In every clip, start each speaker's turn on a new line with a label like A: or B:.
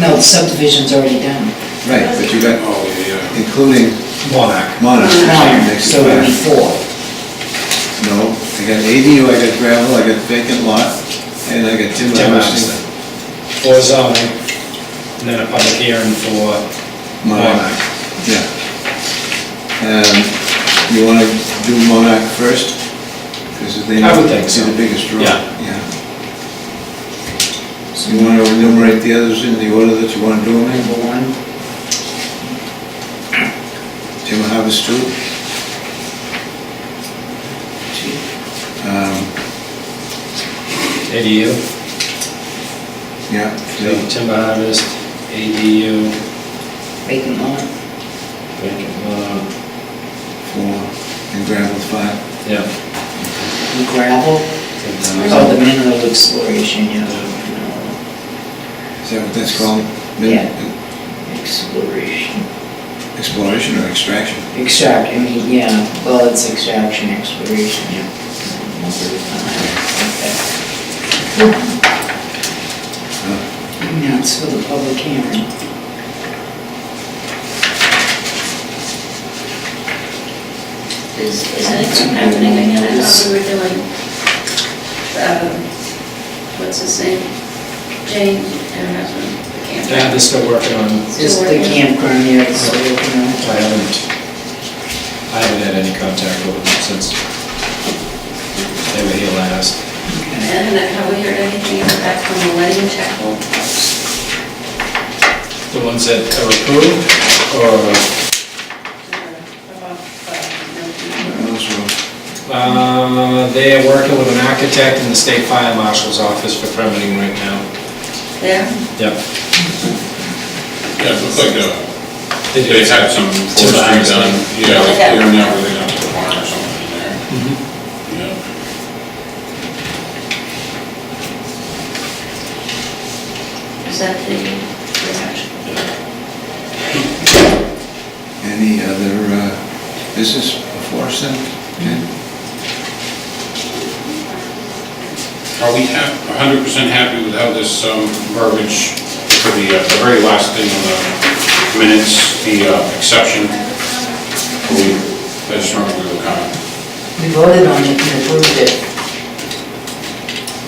A: No, the subdivision's already done.
B: Right, but you got,
C: Oh, yeah.
B: including
D: Monarch.
B: Monarch,
A: Nine,
B: next
A: so it'll be
B: class.
A: four.
B: No, I got ADU, I got gravel, I got vacant lot, and I got timber
D: Timber
B: harvesting.
D: For zoning, and then a public hearing for, uh,
B: Monarch, yeah. Um, You want to do Monarch first? Because they
D: I
B: know
D: would think so.
B: they're the biggest draw.
D: Yeah.
B: So you want to enumerate the others in the order that you want to do them in?
A: Number one,
B: Timber Harvest two,
A: two,
B: um,
D: ADU,
B: yeah,
D: so
B: so
D: timber harvest, ADU,
A: vacant lot,
D: vacant lot,
B: four, and gravel five.
D: yeah.
A: and gravel. Oh, the mineral exploration, you know,
B: Is that what that's called?
A: Yeah. exploration,
B: Exploration or extraction?
A: extract, I mean, yeah, well, it's extraction, exploration, yeah. Okay. Now, it's for the public hearing.
E: Is, is anything happening again? I thought we were doing, um, what's his name? Jane and her husband, the
D: Yeah, they're
E: camper.
D: still working on, it.
A: Just the campground here, it's, you know.
D: I haven't, I haven't had any contact with them since they were here last.
E: And have we heard anything back from the wedding chapel?
D: The ones that are approved, or,
B: Those were
D: uh, they are working with an architect in the state fire marshal's office for permitting right now.
E: There?
D: Yep.
C: Yeah, it looks like uh,
D: They do.
C: they had some forestry
D: Timber
C: done,
D: harvesting.
C: yeah, like clearing out really down to the barn or something in there. Yeah.
E: Is that the, the actual?
B: Any other uh, business before us then? Okay.
C: Are we hap, hundred percent happy with how this um, verbiage for the, uh, the very last thing on the minutes, the uh, exception? Are We, I just remember we were kind of,
A: We voted on it and approved it.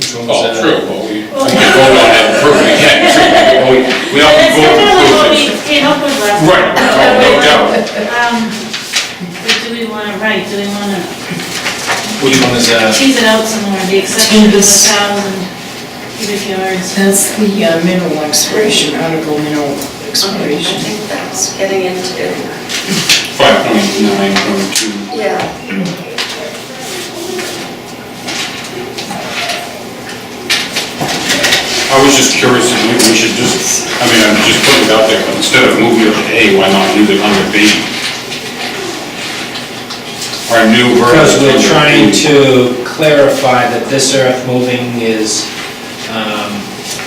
D: Which one was
C: oh,
D: that?
C: true, but we, we can vote on it, prove it again, true, we, we have to
F: That's
C: vote
F: definitely what we
C: to prove it.
F: came up with last time.
C: Right, oh, no doubt.
F: Um, But do we want to write, do we want to
D: Which one is that?
F: tease it out some more, the exception of the
A: Tease.
F: thousand cubic yards?
A: That's the uh, mineral exploration, article mineral
E: Okay, I
A: exploration.
E: think that's getting into,
C: Five point nine point two.
E: yeah.
C: I was just curious if we we should just, I mean, I'm just putting it out there, but instead of moving it to A, why not leave it under B? Our new version.
D: Because we're trying to clarify that this earth moving is um,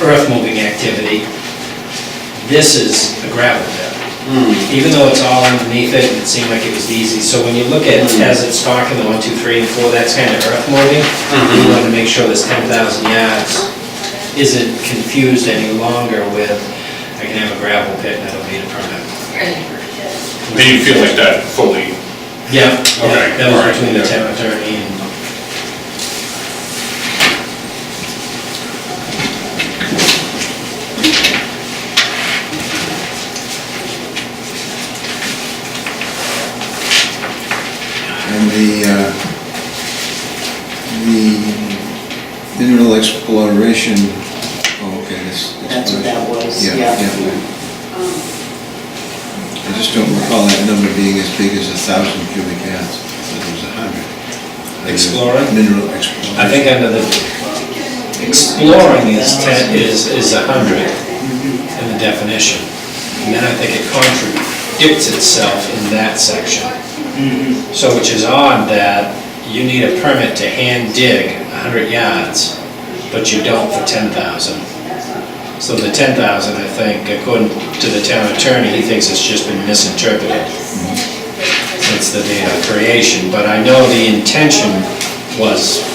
D: earth moving activity. This is a gravel pit.
C: Hmm.
D: Even though it's all underneath it, it seemed like it was easy. So when you look at,
C: Hmm.
D: as it's talking, the one, two, three, and four, that's kind of earth moving.
C: Hmm.
D: We want to make sure this 10,000 yards isn't confused any longer with, I can have a gravel pit and I don't need a permit.
C: Then you feel like that fully,
D: Yeah,
C: Okay,
D: yeah, that
C: all right,
D: was between the
C: yeah.
D: town attorney and
B: And the, uh, the mineral exploration, oh, okay, this.
A: That's what that was, yeah.
B: I just don't recall that number being as big as a thousand cubic yards, I thought it was a hundred.
D: Explorer?
B: Mineral exploration.
D: I think under the, exploring is ten, is, is a hundred in the definition. And then I think it contradicts itself in that section. So which is odd that you need a permit to hand dig a hundred yards, but you don't for ten thousand. So the ten thousand, I think, according to the town attorney, he thinks it's just been misinterpreted since the date of creation. But I know the intention was